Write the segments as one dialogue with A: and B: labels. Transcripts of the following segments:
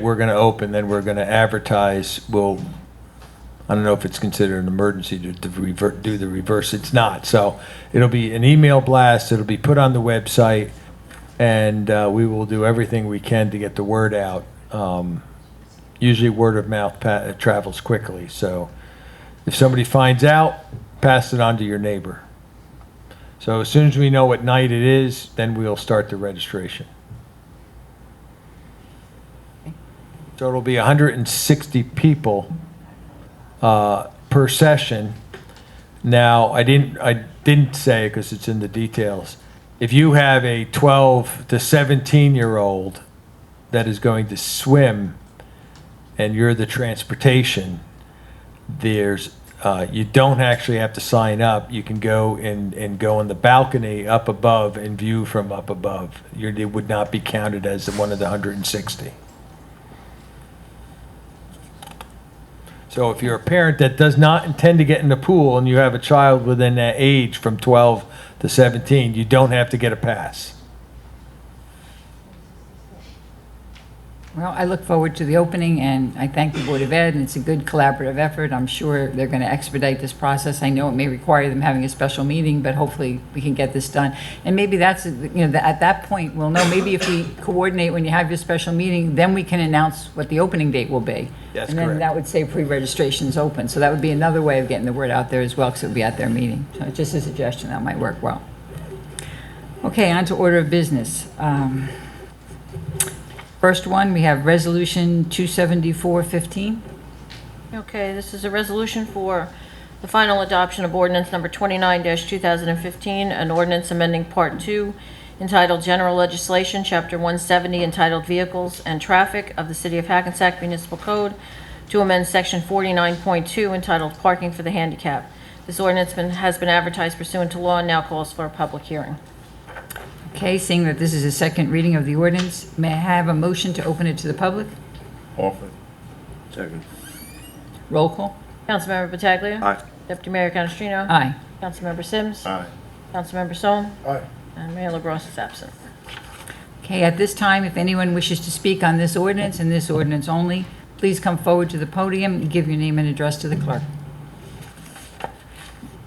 A: We're gonna open, then we're gonna advertise, we'll, I don't know if it's considered an emergency to, to revert, do the reverse, it's not, so it'll be an email blast, it'll be put on the website, and, uh, we will do everything we can to get the word out. Um, usually word of mouth pa- travels quickly, so if somebody finds out, pass it on to your neighbor. So as soon as we know what night it is, then we'll start the registration. So it'll be 160 people uh, per session. Now, I didn't, I didn't say, because it's in the details, if you have a 12 to 17-year-old that is going to swim and you're the transportation, there's, uh, you don't actually have to sign up. You can go and, and go on the balcony up above and view from up above. You're, it would not be counted as one of the 160. So if you're a parent that does not intend to get in the pool and you have a child within that age from 12 to 17, you don't have to get a pass.
B: Well, I look forward to the opening, and I thank the Board of Ed, and it's a good collaborative effort. I'm sure they're going to expedite this process. I know it may require them having a special meeting, but hopefully we can get this done. And maybe that's, you know, at that point, we'll know, maybe if we coordinate when you have your special meeting, then we can announce what the opening date will be.
A: That's
B: And
A: correct.
B: then that would say pre-registration's open, so that would be another way of getting the word out there as well, because it would be at their meeting. So just a suggestion, that might work well. Okay, on to order of business. Um, First one, we have Resolution 27415.
C: Okay, this is a resolution for the final adoption of ordinance number 29-2015, an ordinance amending Part 2 entitled General Legislation, Chapter 170 entitled Vehicles and Traffic of the City of Hackensack Municipal Code to amend Section 49.2 entitled Parking for the Handicap. This ordinance been- has been advertised pursuant to law and now calls for a public hearing.
B: Okay, seeing that this is a second reading of the ordinance, may I have a motion to open it to the public?
D: Offer. Second.
B: Roll call.
C: Councilmember Pataglia.
D: Aye.
C: Deputy Mayor Canestrino.
B: Aye.
C: Councilmember Sims.
D: Aye.
C: Councilmember Sol.
D: Aye.
C: And Mayor LaBrus is absent.
B: Okay, at this time, if anyone wishes to speak on this ordinance and this ordinance only, please come forward to the podium and give your name and address to the clerk.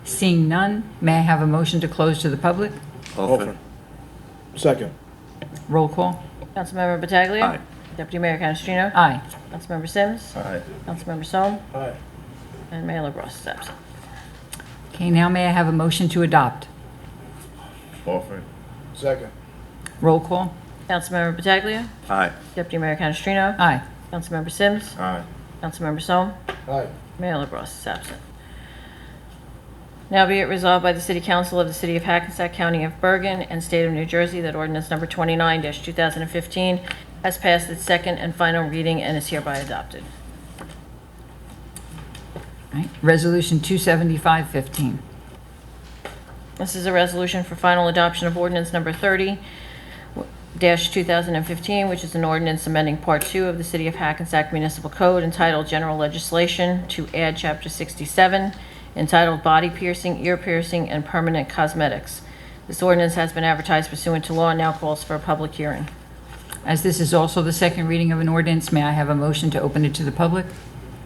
B: Seeing none, may I have a motion to close to the public?
D: Offer. Second.
B: Roll call.
C: Councilmember Pataglia.
D: Aye.
C: Deputy Mayor Canestrino.
B: Aye.
C: Councilmember Sims.
D: Aye.
C: Councilmember Sol.
D: Aye.
C: And Mayor LaBrus is absent.
B: Okay, now may I have a motion to adopt?
D: Offer. Second.
B: Roll call.
C: Councilmember Pataglia.
D: Aye.
C: Deputy Mayor Canestrino.
B: Aye.
C: Councilmember Sims.
D: Aye.
C: Councilmember Sol.
D: Aye.
C: Mayor LaBrus is absent. Now be it resolved by the City Council of the City of Hackensack County of Bergen and State of New Jersey that ordinance number 29-2015 has passed its second and final reading and is hereby adopted.
B: Right. Resolution 27515.
C: This is a resolution for final adoption of ordinance number 30 dash 2015, which is an ordinance amending Part 2 of the City of Hackensack Municipal Code entitled General Legislation to add Chapter 67 entitled Body Piercing, Ear Piercing, and Permanent Cosmetics. This ordinance has been advertised pursuant to law and now calls for a public hearing.
B: As this is also the second reading of an ordinance, may I have a motion to open it to the public?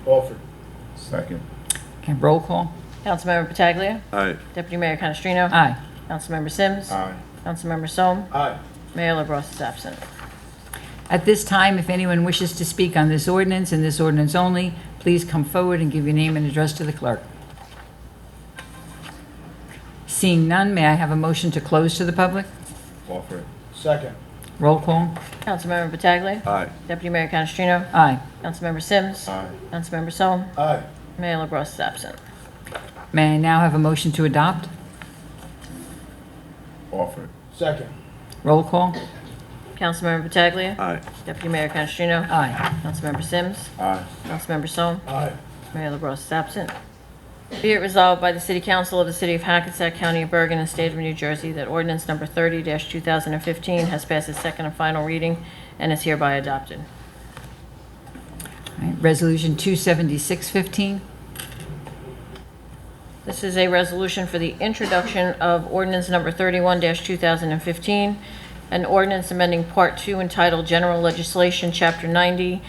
D: Offer. Second.
B: Okay, roll call.
C: Councilmember Pataglia.
D: Aye.
C: Deputy Mayor Canestrino.
B: Aye.
C: Councilmember Sims.
D: Aye.
C: Councilmember Sol.
D: Aye.
C: Mayor LaBrus is absent.
B: At this time, if anyone wishes to speak on this ordinance and this ordinance only, please come forward and give your name and address to the clerk. Seeing none, may I have a motion to close to the public?
D: Offer. Second.
B: Roll call.
C: Councilmember Pataglia.
D: Aye.
C: Deputy Mayor Canestrino.
B: Aye.
C: Councilmember Sims.
D: Aye.
C: Councilmember Sol.
D: Aye.
C: Mayor LaBrus is absent.
B: May I now have a motion to adopt?
D: Offer. Second.
B: Roll call.
C: Councilmember Pataglia.
D: Aye.
C: Deputy Mayor Canestrino.
B: Aye.
C: Councilmember Sims.
D: Aye.
C: Councilmember Sol.
D: Aye.
C: Mayor LaBrus is absent. Be it resolved by the City Council of the City of Hackensack County of Bergen and State of New Jersey that ordinance number 30-2015 has passed its second and final reading and is hereby adopted.
B: All right, Resolution 27615.
C: This is a resolution for the introduction of ordinance number 31-2015, an ordinance amending Part Two entitled General Legislation, Chapter 90,